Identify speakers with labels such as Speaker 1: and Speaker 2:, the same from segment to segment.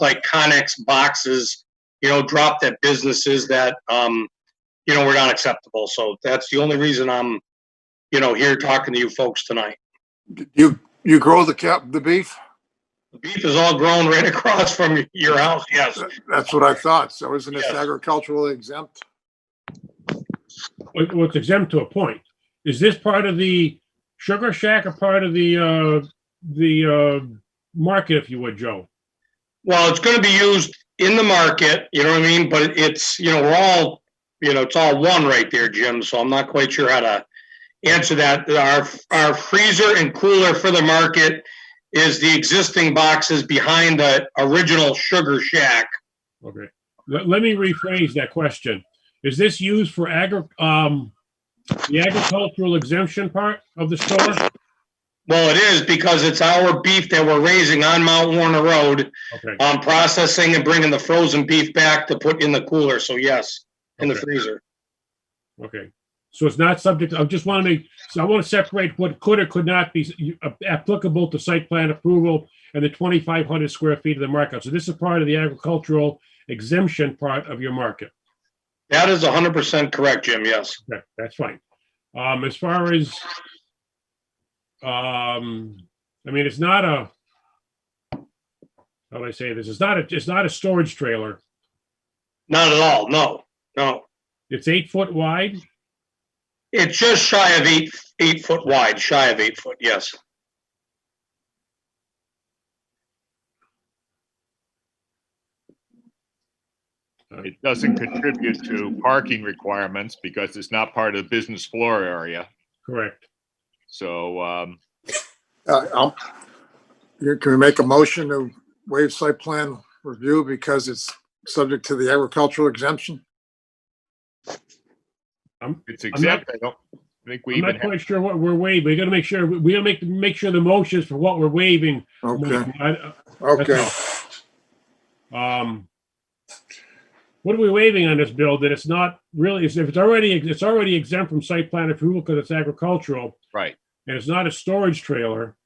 Speaker 1: like Connex boxes, you know, dropped at businesses that, um, you know, were not acceptable. So that's the only reason I'm, you know, here talking to you folks tonight.
Speaker 2: You, you grow the cap, the beef?
Speaker 1: Beef is all grown right across from your house, yes.
Speaker 2: That's what I thought. So isn't this
Speaker 1: Yes.
Speaker 2: agriculturally exempt?
Speaker 3: Well, well, it's exempt to a point. Is this part of the sugar shack or part of the, uh, the, uh, market, if you would, Joe?
Speaker 1: Well, it's gonna be used in the market, you know what I mean? But it's, you know, we're all, you know, it's all one right there, Jim, so I'm not quite sure how to answer that. Our, our freezer and cooler for the market is the existing boxes behind the original Sugar Shack.
Speaker 3: Okay. Let, let me rephrase that question. Is this used for agri, um, the agricultural exemption part of the store?
Speaker 1: Well, it is because it's our beef that we're raising on Mount Warner Road,
Speaker 3: Okay,
Speaker 1: um, processing and bringing the frozen beef back to put in the cooler, so yes, in the
Speaker 3: Okay.
Speaker 1: freezer.
Speaker 3: okay. So it's not subject, I just want to make, so I want to separate what could or could not be s- uh, applicable to site plan approval and the twenty-five hundred square feet of the market. So this is part of the agricultural exemption part of your market.
Speaker 1: That is hundred percent correct, Jim, yes.
Speaker 3: Okay, that's fine. Um, as far as, um, I mean, it's not a, how do I say this? It's not a, it's not a storage trailer.
Speaker 1: Not at all, no, no.
Speaker 3: It's eight foot wide.
Speaker 1: It's just shy of eight, eight foot wide, shy of eight foot, yes.
Speaker 4: It doesn't contribute to parking requirements because it's not part of the business floor area.
Speaker 3: Correct.
Speaker 4: So, um,
Speaker 2: Uh, I'll- you- Can we make a motion to waive site plan review because it's subject to the agricultural exemption?
Speaker 4: it's exempt. I don't think we
Speaker 3: I'm
Speaker 4: even
Speaker 3: not
Speaker 4: have,
Speaker 3: quite sure what we're waiving. We gotta make sure, we gotta make, make sure the motions for what we're waiving.
Speaker 2: Okay,
Speaker 3: I-
Speaker 2: okay.
Speaker 3: Um, what are we waiving on this bill that it's not really, if it's already, it's already exempt from site plan approval because it's agricultural
Speaker 4: right.
Speaker 3: and it's not a storage trailer.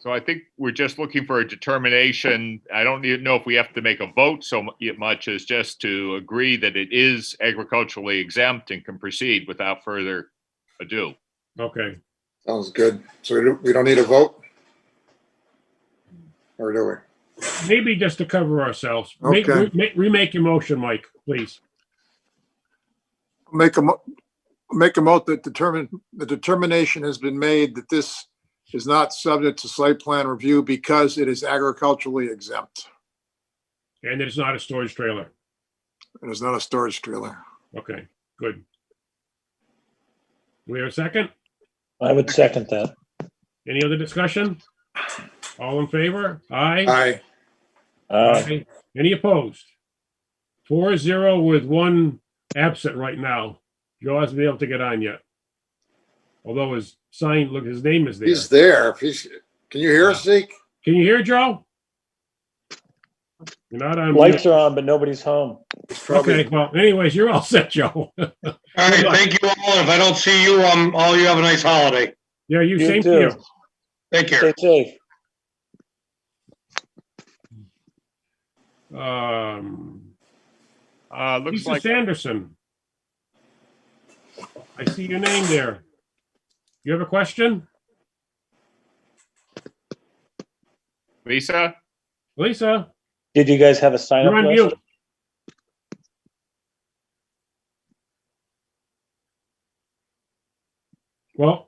Speaker 4: So I think we're just looking for a determination. I don't even know if we have to make a vote so mu- much as just to agree that it is agriculturally exempt and can proceed without further ado.
Speaker 3: Okay.
Speaker 2: Sounds good. So we don't, we don't need a vote? Or do we?
Speaker 3: Maybe just to cover ourselves. Make-
Speaker 2: Okay.
Speaker 3: re- Remake your motion, Mike, please.
Speaker 2: Make a, mo- make a mote that determine, the determination has been made that this is not subject to site plan review because it is agriculturally exempt
Speaker 3: And it's not a storage trailer.
Speaker 2: and is not a storage trailer.
Speaker 3: Okay, good. We have a second?
Speaker 5: I would second that.
Speaker 3: Any other discussion? All in favor? Aye.
Speaker 2: Aye.
Speaker 5: Uh,
Speaker 3: Any opposed? Four zero with one absent right now. Joe hasn't been able to get on yet. Although his sign, look, his name is there.
Speaker 2: He's there. If he's, can you hear us, Zeke?
Speaker 3: Can you hear Joe? You're not on. mute.
Speaker 5: Lights are on, but nobody's home.
Speaker 2: He's
Speaker 3: Okay,
Speaker 2: probably,
Speaker 3: well, anyways, you're all set, Joe.
Speaker 1: All right, thank you all. If I don't see you, um, all you have a nice holiday.
Speaker 3: Yeah, you,
Speaker 5: You
Speaker 3: same to
Speaker 5: too.
Speaker 3: you.
Speaker 1: Take care.
Speaker 5: Stay safe.
Speaker 3: Um,
Speaker 4: Uh, looks
Speaker 3: Lisa
Speaker 4: like,
Speaker 3: Sanderson. I see your name there. You have a question?
Speaker 4: Lisa,
Speaker 3: Lisa,
Speaker 5: Did you guys have a sign
Speaker 3: you're
Speaker 5: up
Speaker 3: on
Speaker 5: list?
Speaker 3: mute. Well,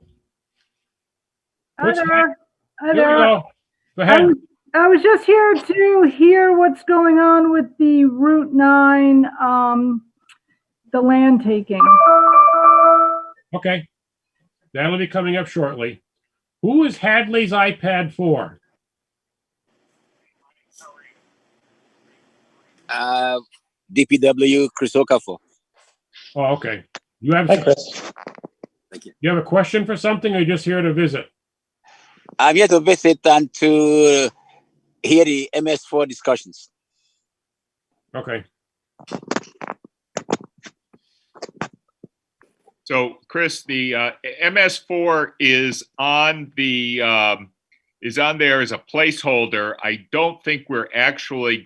Speaker 3: What's
Speaker 6: Other,
Speaker 3: there we
Speaker 6: other.
Speaker 3: go. Go
Speaker 6: I
Speaker 3: ahead.
Speaker 6: was- I was just here to hear what's going on with the Route 9, um, the land taking.
Speaker 3: Okay. That'll be coming up shortly. Who is Hadley's iPad for?
Speaker 7: uh, DPW Chris Okafor.
Speaker 3: Oh, okay. You have,
Speaker 5: Hi, Chris.
Speaker 3: you have a question for something or you're just here to visit?
Speaker 7: I'm here to visit and to hear the MS4 discussions.
Speaker 3: Okay.
Speaker 4: so Chris, the, uh, MS4 is on the, um, is on there as a placeholder. I don't think we're actually